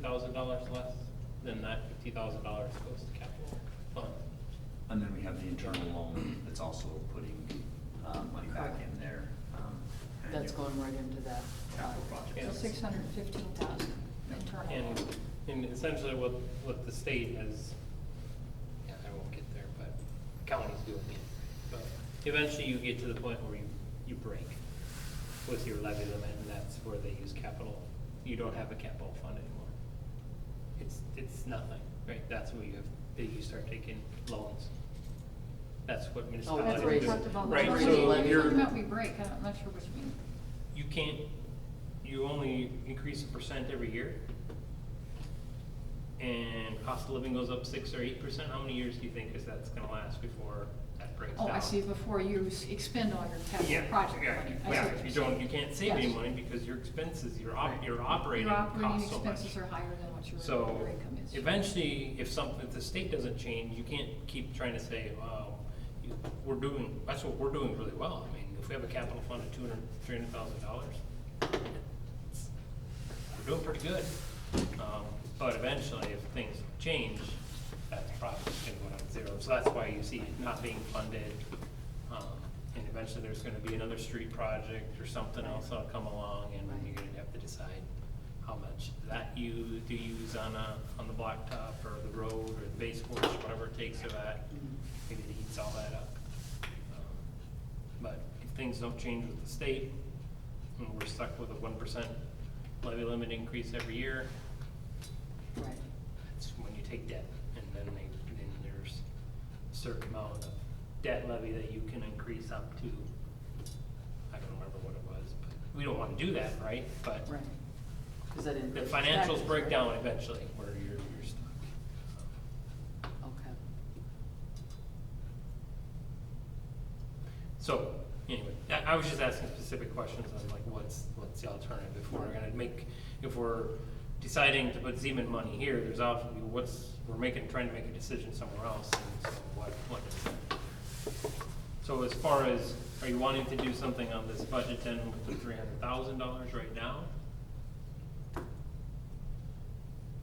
thousand dollars less, then that fifty thousand dollars goes to capital fund. And then we have the internal loan that's also putting uh, money back in there. um, and That's you- going right into that. Capital project. Yeah. So six hundred and fifteen thousand internal. And, and essentially what, what the state has, yeah, I won't get there, but county's doing it. But eventually you get to the point where you, you break with your levy limit, and that's where they use capital. You don't have a capital fund anymore. It's, it's nothing, right? That's where you have, that you start taking loans. That's what municipalities Oh, That's what do. we raise. talked about. Right, Raise We're the so levy you're- Talking about we break, I'm not sure what you mean. you can't, you only increase a percent every year. And cost of living goes up six or eight percent, how many years do you think is that's gonna last before that breaks down? Oh, I see, before you s- expend all your Yeah, capital project yeah, money. I see Yeah, what you you're don't, saying. you can't save any Yes. money because your expenses, your op, Right. your operating Your operating costs so much. expenses are higher than what your- your So income is. eventually, if something, if the state doesn't change, you can't keep trying to say, well, you- we're doing, that's what we're doing really well. I mean, if we have a capital fund of two hundred, three hundred thousand dollars, we're doing pretty good. Um, But eventually, if things change, that's probably gonna go down to zero. So that's why you see it not being funded. Um, And eventually, there's gonna be another street project or something else that'll come along, and you're gonna have to decide how much that you do you use on a, on the blacktop or the road or the base course, whatever it takes for that. Maybe it eats all that up. Um, But if things don't change with the state, and we're stuck with a one percent levy limit increase every year, Right. that's when you take debt. And then they, then there's a certain amount of debt levy that you can increase up to, I don't remember what it was, but we don't wanna do that, right? But Right. Because that the increases taxes, financials break right? down eventually where you're, you're stuck. Okay. So, anyway, I, I was just asking specific questions on like, what's, what's the alternative? If we're gonna make, if we're deciding to put Zeman money here, there's obviously, what's, we're making, trying to make a decision somewhere else, and so what, what is that? So as far as, are you wanting to do something on this budget then with the three hundred thousand dollars right now?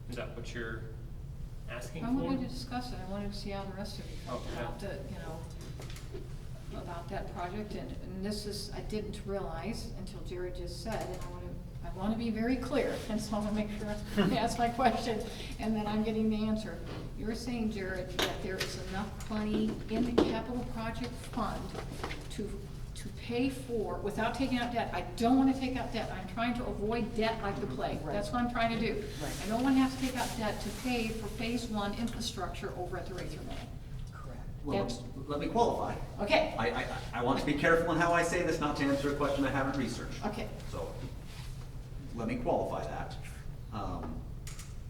Is that what you're asking for? I wanted to discuss it, I wanted to see how the rest of you felt Okay. about the, you know, about that project, and, and this is, I didn't realize until Jared just said, and I wanna, I wanna be very clear, and so I wanna make sure I ask my question, and that I'm getting the answer. You're saying, Jared, that there is enough money in the capital project fund to, to pay for, without taking out debt, I don't wanna take out debt, I'm trying to avoid debt like the plague, Right. that's what I'm trying to do. Right. I don't want to have to take out debt to pay for phase one infrastructure over at the Rayther Mill. Correct. Well, That's- let me qualify. Okay, I, I, I want to be careful in how I say this, not to answer a question I haven't researched. Okay. So, let me qualify that. Um,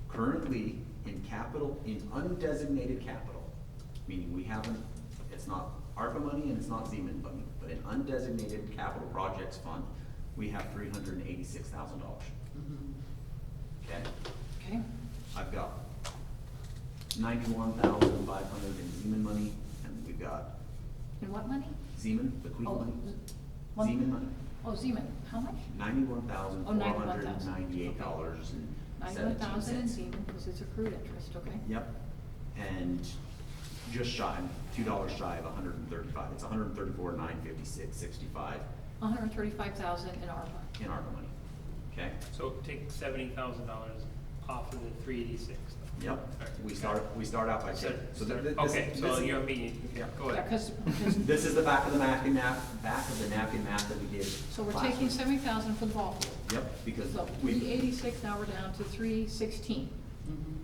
Currently, in capital, in undesignated capital, meaning we haven't, it's not ARPA money and it's not Zeman money, but in undesignated capital projects fund, we have three hundred and eighty-six thousand dollars, Mhm. okay? okay, I've got ninety-one thousand five hundred in Zeman money, and we've got and what money? Zeman, the Queen Oh, money, one- Zeman money, Oh, Zeman, how much? ninety-one thousand Oh, four hundred and 91,000. ninety-eight dollars and Ninety-one seventeen thousand in cents. Zeman, because it's accrued interest, okay? Yep, and just shy, two dollars shy of hundred and thirty-five, it's hundred and thirty-four, nine fifty-six, sixty-five One hundred and thirty-five thousand in ARPA. in ARPA money, okay? So take seventy thousand dollars off of the three eighty-six. Yep, we start, we start out by, saying- so th- th- this. Okay, so this- you're me, Yeah. go ahead. Because, This is the back of the napkin map, back of the napkin map that we did. so we're last taking week. seventy thousand for the ball field. Yep, because So three we, eighty-six, now we're down to three sixteen, Mhm.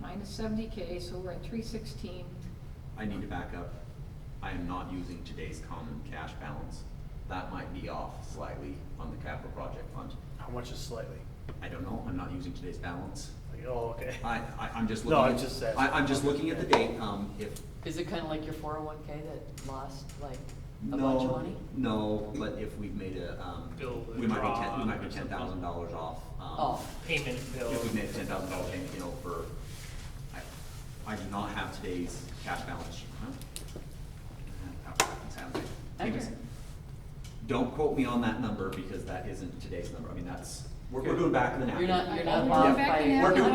minus seventy K, so we're at three sixteen. I need to back up. I am not using today's common cash balance. That might be off slightly on the capital project fund. How much is slightly? I don't know, I'm not using today's balance. Like, oh, okay. I, I, I'm just No, looking. I'm at- just asking. I, I'm just looking at the date, um, if. Is it kind of like your four oh one K that lost like no, a bunch of money? No, but if we've made a, um, Bill, we might be draw ten, we might be or ten something. thousand dollars off. um, Oh, Payment bill. If we made a ten thousand dollar payment, you know, for, I, I do not have today's cash balance sheet, huh? How happens, happens. Anyways, Okay. Don't quote me on that number because that isn't today's number. I mean, that's, we're, we're Okay. doing back of the napkin. you're not, you're We're not doing off back by. the napkin. We're doing